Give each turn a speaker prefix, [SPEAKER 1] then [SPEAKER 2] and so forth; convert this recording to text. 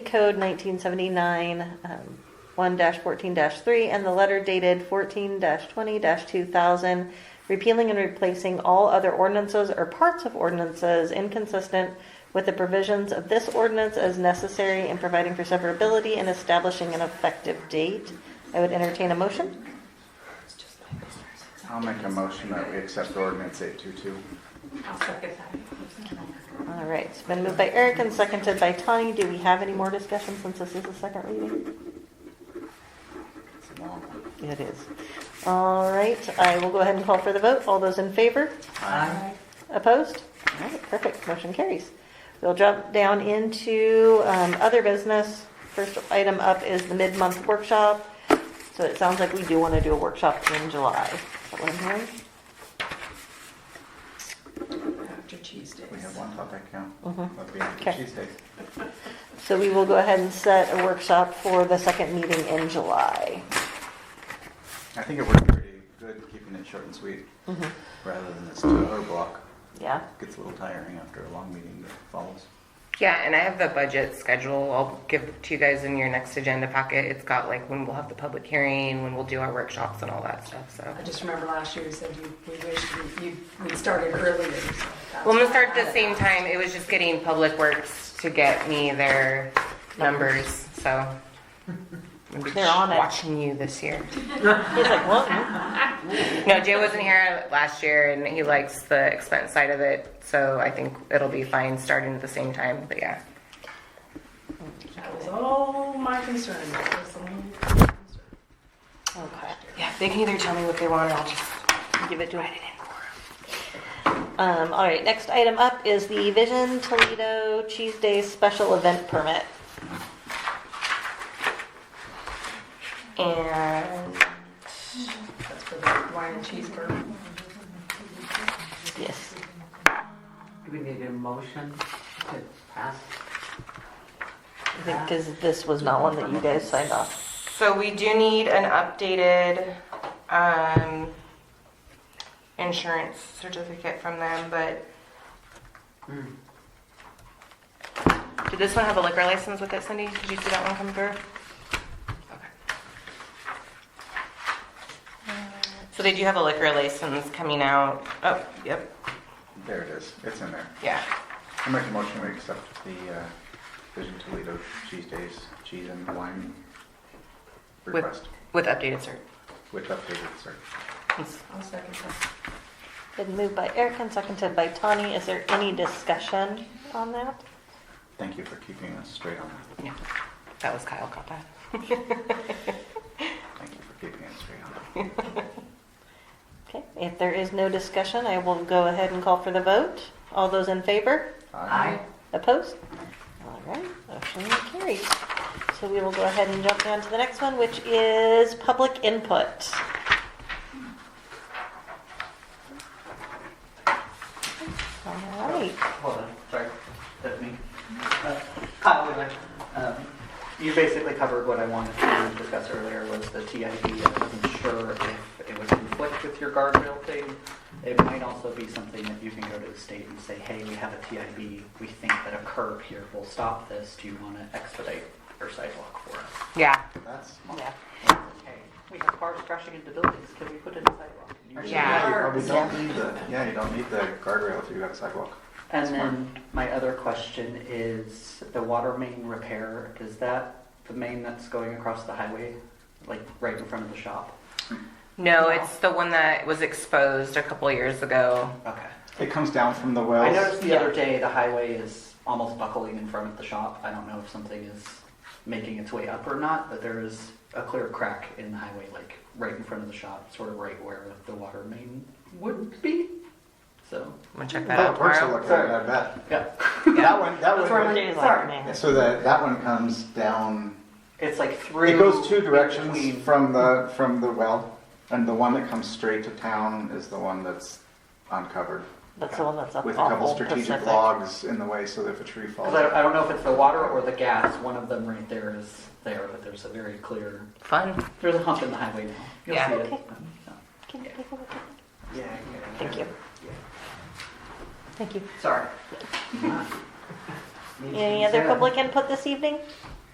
[SPEAKER 1] Code 1979, um, 1-14-3, and the letter dated 14-20-2000, repealing and replacing all other ordinances or parts of ordinances inconsistent with the provisions of this ordinance as necessary and providing for severability and establishing an effective date. I would entertain a motion.
[SPEAKER 2] I'll make a motion that we accept ordinance 822.
[SPEAKER 3] I'll second that.
[SPEAKER 1] All right, it's been moved by Eric and seconded by Tani. Do we have any more discussion since this is the second reading?
[SPEAKER 2] It's a long one.
[SPEAKER 1] It is. All right, I will go ahead and call for the vote. All those in favor?
[SPEAKER 3] Aye.
[SPEAKER 1] Opposed? All right, perfect, motion carries. We'll jump down into um, other business. First item up is the mid-month workshop. So it sounds like we do want to do a workshop in July. Is that what I'm hearing?
[SPEAKER 3] After Cheese Days.
[SPEAKER 2] We have one topic, yeah.
[SPEAKER 1] Mhm.
[SPEAKER 2] That'd be after
[SPEAKER 1] Okay.
[SPEAKER 2] Tuesday.
[SPEAKER 1] So we will go ahead and set a workshop for the second meeting in July.
[SPEAKER 2] I think it worked pretty good, keeping it short and sweet,
[SPEAKER 1] Mhm.
[SPEAKER 2] rather than this two-hour block.
[SPEAKER 1] Yeah?
[SPEAKER 2] Gets a little tiring after a long meeting that follows.
[SPEAKER 4] Yeah, and I have the budget schedule. I'll give to you guys in your next agenda packet. It's got like when we'll have the public hearing, when we'll do our workshops and all that stuff, so.
[SPEAKER 3] I just remember last year you said you, we wished you, you- we'd started earlier. so that's
[SPEAKER 4] Well, I'm gonna start at
[SPEAKER 3] why I
[SPEAKER 4] the same time. It was just getting Public Works to get me their numbers, so.
[SPEAKER 1] They're on it.
[SPEAKER 4] Watching you this year.
[SPEAKER 1] He's like, well,
[SPEAKER 4] No, Jay wasn't here last year and he likes the expense side of it, so I think it'll be fine starting at the same time, but yeah.
[SPEAKER 3] That was all my concern. That was all my concern.
[SPEAKER 1] okay.
[SPEAKER 4] Yeah, they can either tell me what they want or I'll just
[SPEAKER 1] Give it to him. Um, all right, next item up is the Vision Toledo Cheese Day Special Event Permit. And,
[SPEAKER 3] That's for the wine and cheese burger.
[SPEAKER 1] yes,
[SPEAKER 5] Do we need a motion to pass?
[SPEAKER 1] I think because this was not one that you guys signed off.
[SPEAKER 4] So we do need an updated um, insurance certificate from them, but
[SPEAKER 5] Hmm.
[SPEAKER 4] did this one have a liquor license with it, Cindy? Did you see that one come through? Okay. So they do have a liquor license coming out. Oh, yep,
[SPEAKER 2] There it is. It's in there.
[SPEAKER 4] yeah.
[SPEAKER 2] I make a motion we accept the uh, Vision Toledo Cheese Days Cheese and Wine
[SPEAKER 4] With,
[SPEAKER 2] request
[SPEAKER 4] with updated cert.
[SPEAKER 2] with updated cert.
[SPEAKER 3] I'll second that.
[SPEAKER 1] Been moved by Eric and seconded by Tani. Is there any discussion on that?
[SPEAKER 2] Thank you for keeping us straight on that.
[SPEAKER 4] Yeah, that was Kyle got that.
[SPEAKER 2] Thank you for keeping us straight on that.
[SPEAKER 1] Okay, if there is no discussion, I will go ahead and call for the vote. All those in favor?
[SPEAKER 2] Aye.
[SPEAKER 1] Opposed? All right, motion carries. So we will go ahead and jump down to the next one, which is public input. All right,
[SPEAKER 6] Hold on, sorry, that's me. Uh, Kyle, would like, um, you basically covered what I wanted to discuss earlier was the TID. I wasn't sure if it would conflict with your guardrail thing. It might also be something that you can go to the state and say, hey, we have a TID. We think that a curb here will stop this. Do you want to expedite your sidewalk for us?
[SPEAKER 4] Yeah,
[SPEAKER 2] That's smart.
[SPEAKER 1] yeah.
[SPEAKER 6] Hey, we have cars crashing into buildings. Can we put in a sidewalk?
[SPEAKER 4] Yeah.
[SPEAKER 2] You probably don't need the, yeah, you don't need the guardrail if you have a sidewalk.
[SPEAKER 6] And then my other question is the water main repair, is that the main that's going across the highway, like right in front of the shop?
[SPEAKER 4] no, it's the one that was exposed a couple years ago.
[SPEAKER 6] Okay.
[SPEAKER 2] It comes down from the
[SPEAKER 6] I
[SPEAKER 2] wells.
[SPEAKER 6] noticed the other day the highway is almost buckling in front of the shop. I don't know if something is making its way up or not, but there is a clear crack in the highway, like right in front of the shop, sort of right where the water main would be. So,
[SPEAKER 4] I'm gonna check that out
[SPEAKER 2] Public Works will
[SPEAKER 4] tomorrow.
[SPEAKER 2] look at it, I bet.
[SPEAKER 6] yeah.
[SPEAKER 2] That one, that
[SPEAKER 6] That's where
[SPEAKER 2] one.
[SPEAKER 6] I'm
[SPEAKER 1] Do like
[SPEAKER 6] sorry.
[SPEAKER 1] me.
[SPEAKER 2] So that, that one comes down,
[SPEAKER 6] It's like through.
[SPEAKER 2] it goes two
[SPEAKER 6] in
[SPEAKER 2] directions
[SPEAKER 6] between.
[SPEAKER 2] from the, from the well. And the one that comes straight to town is the one that's uncovered.
[SPEAKER 1] That's the one that's up
[SPEAKER 2] With a
[SPEAKER 1] off
[SPEAKER 2] couple
[SPEAKER 1] Old
[SPEAKER 2] strategic
[SPEAKER 1] Pacific.
[SPEAKER 2] logs in the way so that if a tree falls.
[SPEAKER 6] Because I, I don't know if it's the water or the gas, one of them right there is there, but there's a very clear,
[SPEAKER 4] Fun.
[SPEAKER 6] there's a hump in the highway now. You'll
[SPEAKER 4] Yeah.
[SPEAKER 6] see it.
[SPEAKER 1] Okay.
[SPEAKER 6] Um, so.
[SPEAKER 1] Can you take a look at
[SPEAKER 6] Yeah,
[SPEAKER 1] that? Thank you. Thank you.
[SPEAKER 6] Sorry.
[SPEAKER 1] Any other public input this evening?